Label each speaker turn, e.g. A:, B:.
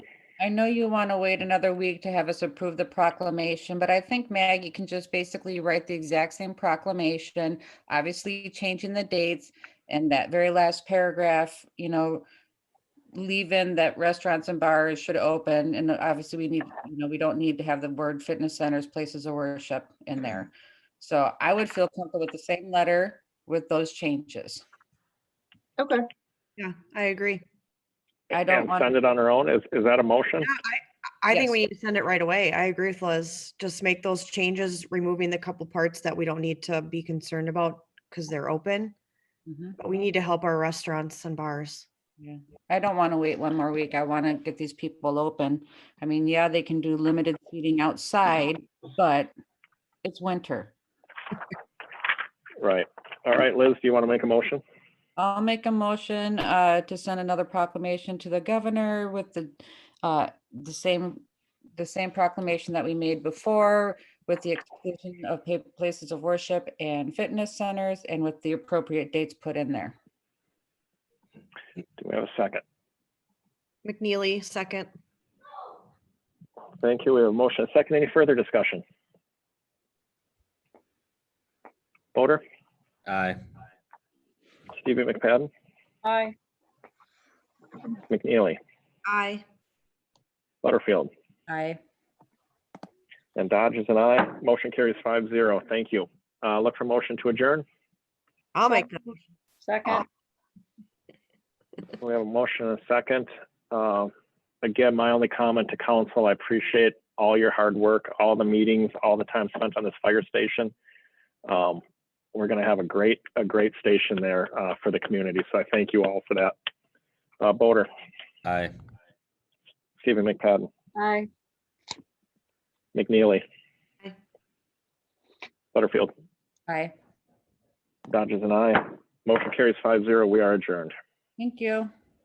A: I know you want to wait another week to have us approve the proclamation, but I think Maggie can just basically write the exact same proclamation, obviously changing the dates and that very last paragraph, you know, leave in that restaurants and bars should open. And obviously we need, you know, we don't need to have the word fitness centers, places of worship in there. So I would feel comfortable with the same letter with those changes.
B: Okay.
C: Yeah, I agree.
A: I don't
D: And
A: want-
D: Send it on our own. Is, is that a motion?
C: Yeah, I, I think
A: Yes.
C: we need to send it right away. I agree with Liz. Just make those changes, removing the couple parts that we don't need to be concerned about because they're open.
A: Mhm.
C: But we need to help our restaurants and bars.
A: I don't want to wait one more week. I want to get these people open. I mean, yeah, they can do limited seating outside, but it's winter.
D: Right. All right, Liz, do you want to make a motion?
A: I'll make a motion uh, to send another proclamation to the governor with the, uh, the same, the same proclamation that we made before with the exclusion of pa- places of worship and fitness centers and with the appropriate dates put in there.
D: Do we have a second?
C: McNeely, second.
D: Thank you. We have a motion. and A second. Any further discussion? Voter,
E: Aye.
D: Stevie McFadden,
B: Aye.
D: McNeely,
C: Aye.
D: Butterfield,
A: Aye.
D: and Dodge is an aye. Motion carries five zero. Thank you. Uh, look for motion to adjourn.
C: I'll make that.
B: Second.
D: We have a motion and a second. Uh, Again, my only comment to council, I appreciate all your hard work, all the meetings, all the time spent on this fire station. Um, We're going to have a great, a great station there uh, for the community, so I thank you all for that. Uh, Boder,
E: Aye.
D: Stephen McPadden,
B: Aye.
D: McNeely.
C: Aye.
D: Butterfield,
A: Aye.
D: Dodges and I. Motion carries five zero. We are adjourned.
A: Thank you.